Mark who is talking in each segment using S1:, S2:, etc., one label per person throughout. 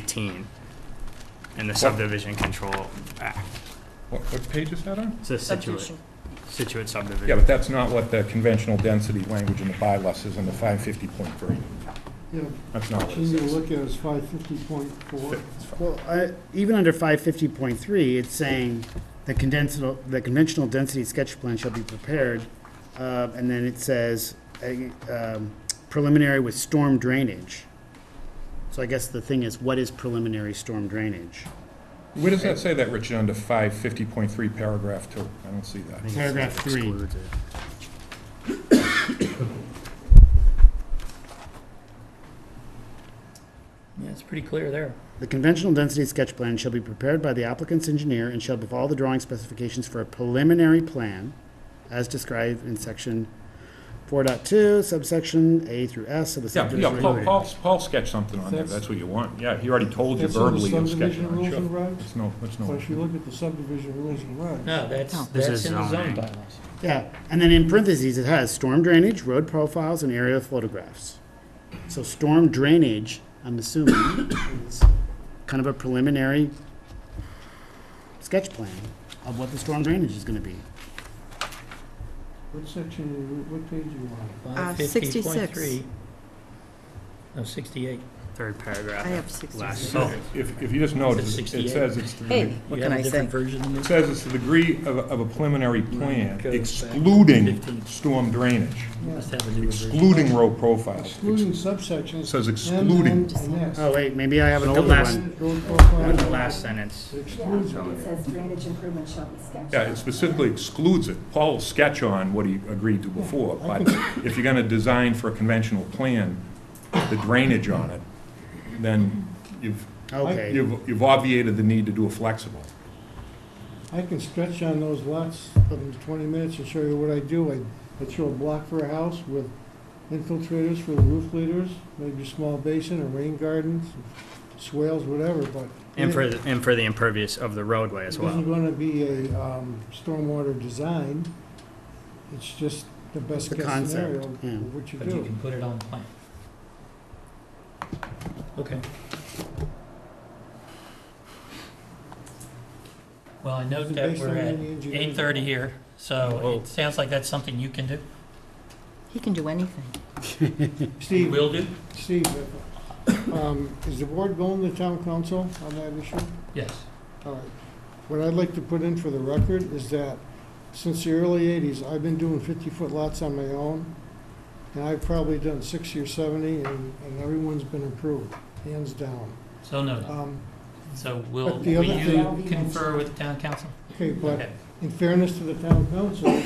S1: 18 in the subdivision control act.
S2: What, what page is that on?
S1: It's the Situate, Situate
S2: Yeah,
S1: subdivision.
S2: but that's not what the conventional density language in the bylaw says in the five fifty point three.
S3: Yeah,
S2: That's not what it
S3: shouldn't you
S2: says.
S3: look at it's five fifty point four?
S2: It's fine.
S4: Well, I- even under 550.3, it's saying the conventional, the conventional density sketch plan shall be prepared, uh, and then it says uh, um, preliminary with storm drainage. So I guess the thing is, what is preliminary storm drainage?
S2: Where does that say that, Richard, under five fifty point three paragraph two? I don't see that.
S1: I think it
S4: Paragraph three.
S1: excludes it.
S5: Yeah, it's pretty clear there.
S4: The conventional density sketch plan shall be prepared by the applicant's engineer and shall have all the drawing specifications for a preliminary plan as described in section 4.2 subsection A through S of the
S2: Yeah,
S4: subdivision.
S2: yeah, Paul,
S4: regulations.
S2: Paul, Paul sketched something on there,
S3: That's-
S2: that's what you want. Yeah, he already told you
S3: That's in the
S2: verbally he'll sketch it
S3: subdivision
S2: on.
S3: rules
S2: Sure.
S3: and regs,
S2: It's no, it's
S3: but
S2: no.
S3: if you look at the subdivision rules and regs,
S5: No, that's,
S1: This is Uh,
S5: that's in the
S1: zoning.
S5: zoning bylaws.
S4: Yeah, and then in parentheses, it has storm drainage, road profiles, and aerial photographs. So storm drainage, I'm assuming, is kind of a preliminary sketch plan of what the storm drainage is gonna be.
S3: what section, are you- what page are you on?
S6: Uh,
S5: 550.3.
S6: 66.
S5: No, 68.
S1: Third
S6: I
S1: paragraph,
S6: have six.
S1: last, oh,
S2: So, if, if you just notice, it
S5: 68?
S2: says it's the
S6: Hey, what
S5: You
S6: can
S5: have
S6: I
S5: a
S6: say?
S5: different version than
S2: It
S5: this?
S2: says it's the degree of, of a preliminary plan
S5: Goes back
S2: excluding
S5: 15.
S2: storm drainage,
S5: Must
S3: Yeah.
S5: have a newer version.
S2: excluding road profiles,
S3: Excluding subsections.
S2: says
S3: M,
S2: excluding.
S3: N, and S.
S4: Oh, wait, maybe I have an
S1: The
S4: older
S1: last-
S4: one.
S3: Road profile.
S1: the last sentence.
S3: Excludes.
S1: So-
S7: It says drainage improvements shall be sketched.
S2: Yeah, it specifically excludes it. Paul will sketch on what he agreed to before, but if you're gonna design for a conventional plan, the drainage on it, then you've,
S4: Okay,
S2: you've you've obviated the need to do a flexible.
S3: I can stretch on those lots in twenty minutes and show you what I do. I, I show a block for a house with infiltrators for the roof leaders, maybe a small basin, a rain garden, swales, whatever, but.
S1: And for, the- and for the impervious of the roadway as
S3: It isn't
S1: well.
S3: gonna be a, um, stormwater design, it's just the best
S4: The
S3: guess
S4: concept,
S3: scenario
S4: yeah.
S3: of what you
S5: But you
S3: do.
S5: can put it on the plan. Okay. Well, I note
S3: Is it
S5: that
S3: based
S5: we're
S3: on
S5: at
S3: any engineering?
S5: 8:30 here, so
S1: Whoa.
S5: it sounds like that's something you can do.
S6: He can do anything.
S3: Steve,
S5: Will do?
S3: Steve, um, is the board going to town council on that issue?
S5: Yes.
S3: All right. What I'd like to put in for the record is that since the early eighties, I've been doing fifty-foot lots on my own, and I've probably done sixty or seventy, and, and everyone's been approved, hands down.
S5: So noted.
S3: Um,
S5: So will
S3: But the
S5: will
S3: other
S5: you
S7: thing-
S5: confer with town council?
S3: okay, but
S5: Okay.
S3: in fairness to the town council,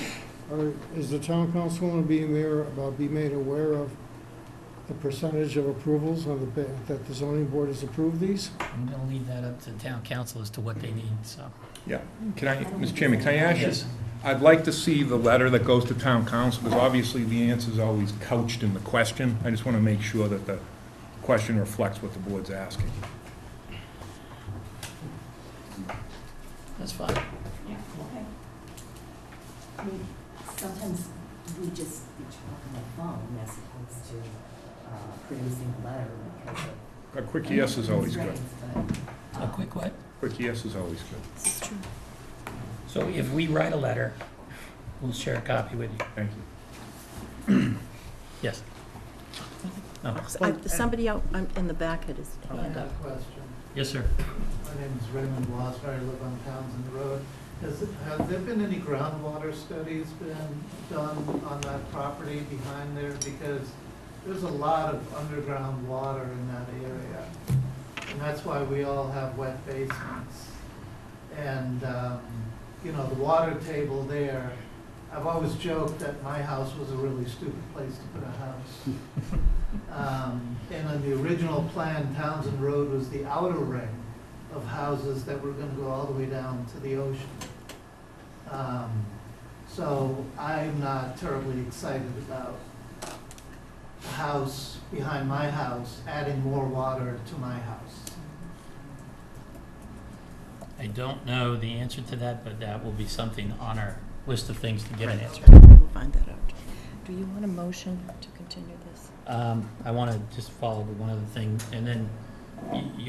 S3: or is the town council going to be aware, about, be made aware of the percentage of approvals on the, ba- that the zoning board has approved these?
S5: I'm going to leave that up to town council as to what they need, so.
S2: Can I, Mr. Chairman, can I ask you? I'd like to see the letter that goes to town council, because obviously the answer's always couched in the question. I just wanna make sure that the question reflects what the board's asking.
S5: That's fine.
S7: Yeah, okay. I mean, sometimes we just be talking on the phone as opposed to uh, producing a letter because
S2: A
S7: of.
S2: quick yes is always good.
S7: But,
S8: uh,
S5: A quick what?
S2: Quick yes is always good.
S6: This is true.
S5: So if we write a letter, we'll share a copy with you.
S2: Thank you.
S5: Yes. No.
S6: I- Somebody out um, in the back had his
S3: oh,
S8: I
S6: hand
S8: have
S6: up.
S8: a question.
S5: Yes, sir.
S8: My name is Raymond Wasser, I live on Townsend Road. Has, have there been any groundwater studies been done on that property behind there? Because there's a lot of underground water in that area. And that's why we all have wet basements. And, um, you know, the water table there, I've always joked that my house was a really stupid place to put a house. Um, And on the original plan, Townsend Road was the outer ring of houses that were gonna go all the way down to the ocean. Um, So I'm not terribly excited about a house behind my house adding more water to my house.
S5: I don't know the answer to that, but that will be something on our list of things to get an answer.
S6: We'll find that out. Do you want a motion to continue this?
S5: Um, I want to just follow with one other thing, and then y-